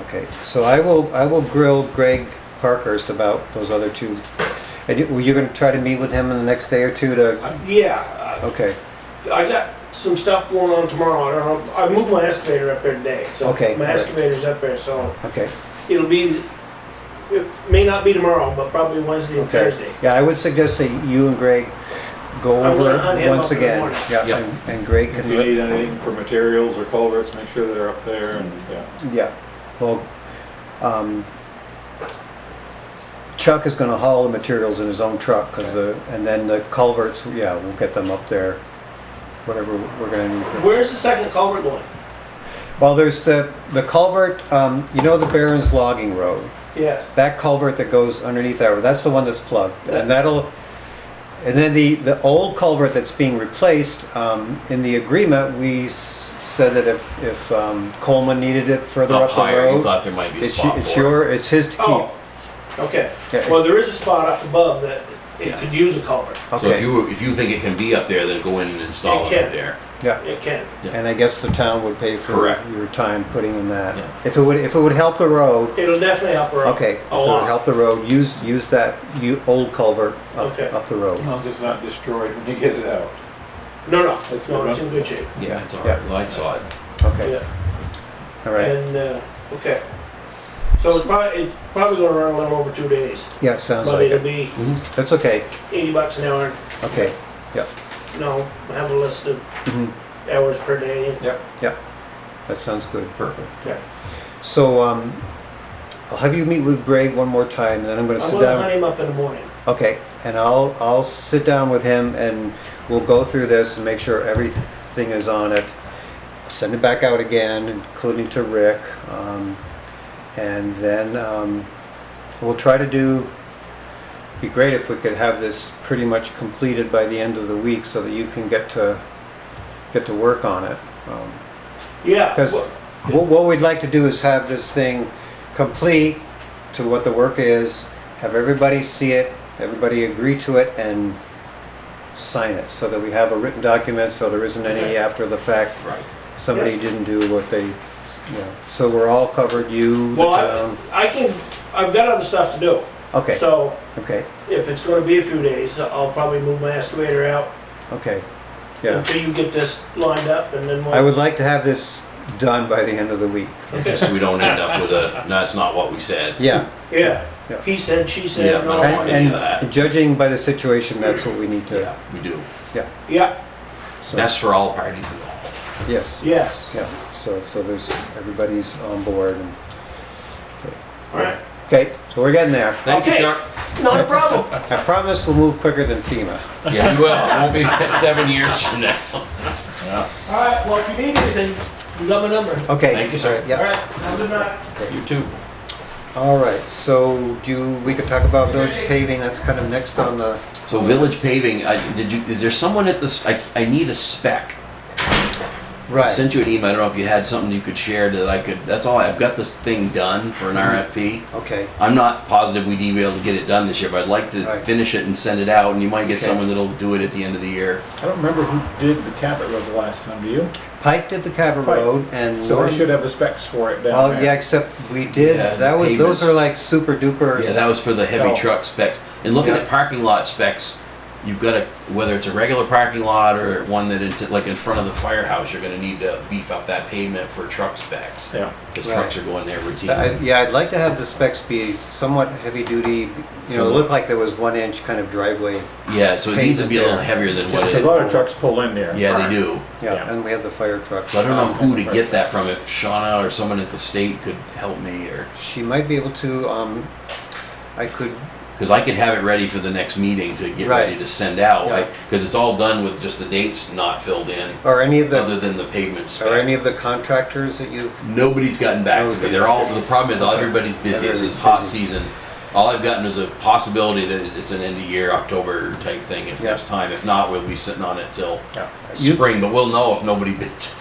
Okay, so I will, I will grill Greg Parkhurst about those other two. And you, were you gonna try to meet with him in the next day or two to, Uh, Yeah, okay, uh, I got some stuff going on tomorrow. I don't know, I moved my excavator up there today, so. Okay, My all right. excavator's up there, so okay. it'll be, it may not be tomorrow, but probably Wednesday and okay. Thursday. Yeah, I would suggest that you and Greg go I'm gonna over hunt it him once up in the again. morning. Yeah, Yeah. and- and Greg If can you look, need anything for materials or culverts, make sure they're up there and, yeah. yeah, well, um, Chuck is gonna haul the materials in his own truck, cause the, and then the culverts, yeah, we'll get them up there. Whatever we're gonna need for Where's the second culvert going? Well, there's the, the culvert, um, you know the Barron's logging road? Yes. That culvert that goes underneath that, road, that's the one that's plugged. And that'll, and then the, the old culvert that's being replaced, um, in the agreement, we s- said that if, if um, Coleman needed it further Up up the higher, you road. thought there might be a It's, y- spot it's for it. your, it's his to Oh, keep. okay. Yeah. Well, there is a spot up above that it Yeah. could use a culvert. So if Okay, you, if you think it can be up there, then go in and install It it up can. there. yeah. It can. And I guess the town would pay for Correct. your time putting in Yeah. that. If it would, if it would help the road, It'll definitely help her out. okay, if it A Oh, would lot. help the road, use, use that, you, old culvert up, Okay. up the road. As long as it's not destroyed when you get it out. No, no, That's no, good, it's huh? in good shape. Yeah, it's all Yeah. right. Well, I saw it. Okay, Yeah. all right. And, uh, okay. So it's probably, it's probably gonna run a little over two days, Yeah, it sounds but like it'll it. be That's okay. eighty bucks an hour, Okay. Yeah. you know, have a list of Mhm. hours per day. Yep. Yeah. That sounds good. Perfect. Okay. So um, I'll have you meet with Greg one more time, and then I'm going to I'm sit gonna hunt down. him up in the morning. Okay, and I'll I'll sit down with him, and we'll go through this and make sure everything is on it. Send it back out again, including to Rick, um, and then um, we'll try to do. Be great if we could have this pretty much completed by the end of the week, so that you can get to get to work on it. Um, Yeah. Because well, what, what we'd like to do is have this thing complete to what the work is, have everybody see it, everybody agree to it and sign it, so that we have a written document, so there isn't any Okay. after the fact, Right. somebody didn't do what they, you know, so we're all covered, you, the Well, town. I, I can, I've got other stuff to do. Okay, So okay, if it's gonna be a few days, I'll probably move my excavator out okay, yeah. until you get this lined up and then we'll. I would like to have this done by the end of the week. Just so we don't end up with a, no, it's not what we said. Yeah, Yeah, Yeah. he said, she Yeah, said, I no, don't want and, I- any of that. and judging by the situation, that's what we need to, Yeah, we do. yeah, so- That's for all parties involved. yes. yes, Yeah, so, so there's, everybody's on board and, alright, okay, so we're getting there. Thank you, Okay. Chuck. not a problem. I promise we'll move quicker than FEMA. Yeah, you will. It won't be seven years from now. Alright, well, if you need anything, you got my number. Okay. Thank you, sir. Yeah, Alright, have a good night. You too. all right, so do, you- we could talk about village paving, that's kind of next on the, So village paving, I, did you, is there someone at this, I, I need a spec. I right, sent you an email, I don't know if you had something you could share that I could, that's all, I've got this thing done for an Mm-hmm. RFP. okay, I'm not positive we'd be able to get it done this year, but I'd like to Right. finish it and send it out, and you might get Okay. someone that'll do it at the end of the year. I don't remember who did the Cabot Road the last time, do you? Pike did the Cabot Pike. Road and. So Lauren- they should have the specs for it down Well, there. yeah, except we did, Yeah, that the was, those pavements. are like super duper. Yeah, that was for the heavy Oh. truck specs. And looking Yeah. at parking lot specs, you've got to, whether it's a regular parking lot or one that, into- like in front of the firehouse, you're gonna need to beef up that pavement for truck specs. Yeah. Because Right. trucks are going there routinely. I- Yeah, I'd like to have the specs be somewhat heavy duty, you know, Similar. look like there was one inch kind of driveway, Yeah, so it needs to be a little Pavement heavier than what Just 'cause it, a lot of trucks pull in there. yeah, they do. yeah, Yeah. and we have the fire truck. So I don't know who to get that from, if Shauna or someone at the state could help me or, She might be able to, um, I could, because I could have it ready for the next meeting to get ready Right. to send out. Yeah. Because it's all done with just the dates not filled in, or any of other the, than the pavement spec. or any of the contractors that you've, Nobody's gotten back to me. They're all, the problem is all everybody's busy. This is hot Everybody's busy. season. All I've gotten is a possibility that it's an end of year, October type thing if there's time. If not, we'll be sitting on it till Yeah. You- spring, but we'll know if nobody bids.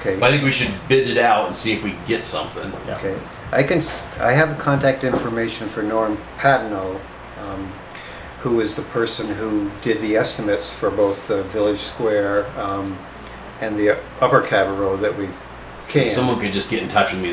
okay, I think we should bid it out and see if we get something. Yeah. okay. I can, s- I have contact information for Norm Patino, um, who is the person who did the estimates for both the Village Square, um, and the Upper Cabot Road that we So came. Someone could just get in touch with me